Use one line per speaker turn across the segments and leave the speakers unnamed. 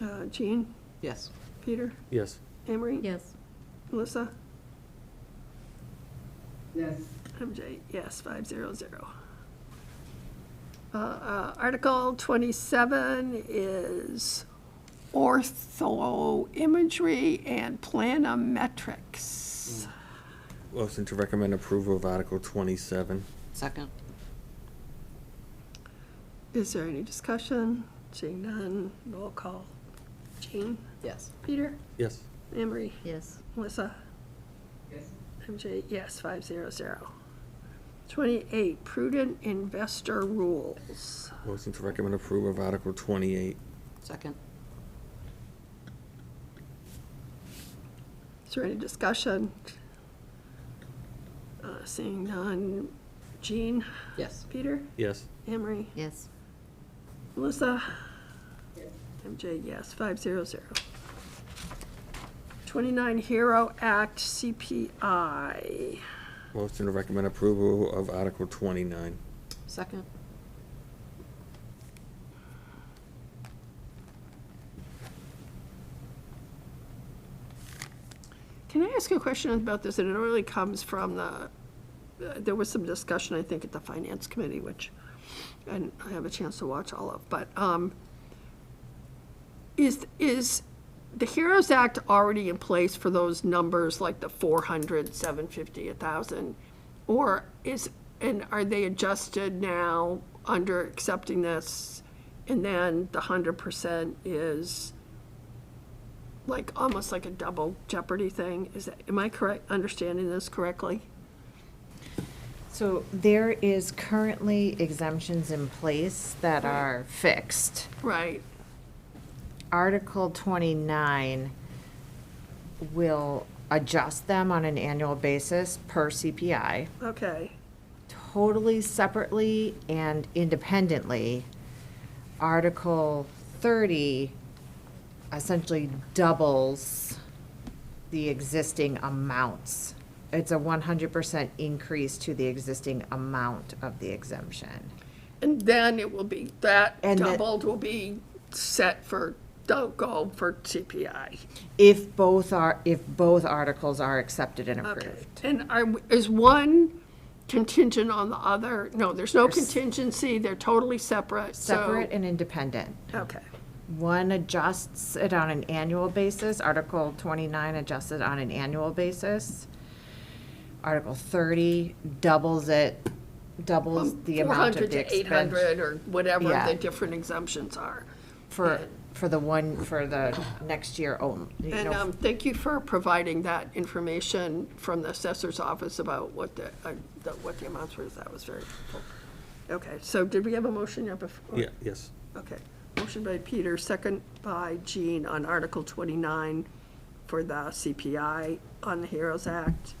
Uh, Jean,
Yes.
Peter,
Yes.
Emery?
Yes.
Melissa?
yes,
MJ, yes, five zero zero. Uh, uh, Article twenty-seven is orthoimagery and planometrics.
Motion to recommend approval of Article 27.
Second?
Is there any discussion? Seeing none, roll call. Jean,
Yes.
Peter,
Yes.
Emery,
Yes.
Melissa?
yes,
MJ, yes, five zero zero. Twenty-eight, prudent investor rules.
Motion to recommend approval of Article 28.
Second?
Is there any discussion? Uh, Seeing none, Jean,
Yes.
Peter,
Yes.
Emery,
Yes.
Melissa?
yes,
MJ, yes, five zero zero. Twenty-nine Hero Act CPI.
Motion to recommend approval of Article 29.
Second?
Can I ask you a question about this? And it really comes from the, uh, there was some discussion, I think, at the Finance Committee, which, and I have a chance to watch all of, but, um, is, is the HEROES Act already in place for those numbers, like the 400, 750, 1,000? Or is, and are they adjusted now under accepting this? And then the 100% is like almost like a double jeopardy thing. Is that, am I correct, understanding this correctly?
So there is currently exemptions in place that are fixed.
Right.
Article 29 will adjust them on an annual basis per CPI,
Okay.
totally separately and independently. Article 30 essentially doubles the existing amounts. It's a 100% increase to the existing amount of the exemption.
And then it will be that
And the-
doubled will be set for don't go for CPI.
If both are, if both articles are accepted and
Okay.
approved.
And are, is one contingent on the other? No, there's no contingency. They're totally separate. so-
Separate and independent.
Okay.
One adjusts it on an annual basis, Article 29 adjusts it on an annual basis. Article 30 doubles it, doubles the amount
400
of the
to
expense.
800 or whatever
Yeah.
the different exemptions are.
For, for the one, for the next year only. you
And
know,
um, thank you for providing that information from the assessor's office about what the, uh, the- what the amounts were. That was very helpful. Okay, so did we have a motion yet before?
Yeah, yes.
Okay. Motion by Peter, second by Jean on Article 29 for the CPI on the HEROES Act.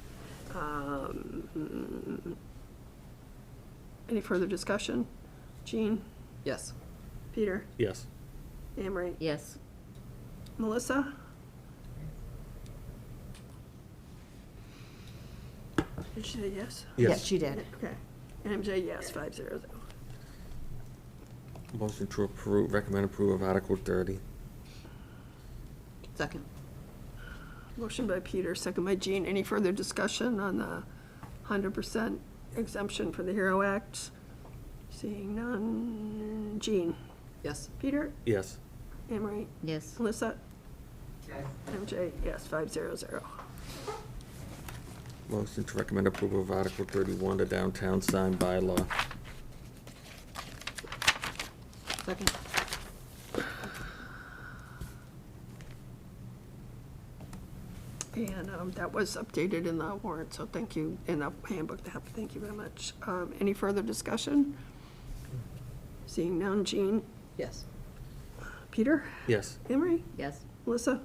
Um, Any further discussion? Jean,
Yes.
Peter,
Yes.
Emery,
Yes.
Melissa? Did she say yes?
Yeah, she did.
Okay. MJ, yes, five zero zero.
Motion to approve, recommend approval of Article 30.
Second?
Motion by Peter, second by Jean. Any further discussion on the hundred percent exemption for the HERO Act? Seeing none. Jean,
Yes.
Peter,
Yes.
Emery,
Yes.
Melissa,
yes,
MJ, yes, five zero zero.
Motion to recommend approval of Article 31, the downtown sign bylaw.
Second?
And um, that was updated in the warrant, so thank you, in the handbook, that- thank you very much. Um, Any further discussion? Seeing none, Jean,
Yes.
Peter,
Yes.
Emery,
Yes.
Melissa,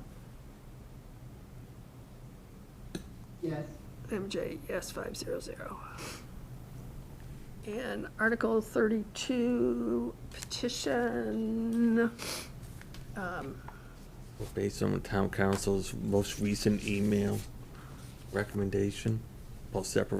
yes,
MJ, yes, five zero zero. And Article thirty-two petition, um,
Based on town council's most recent email recommendation, Paul Sepper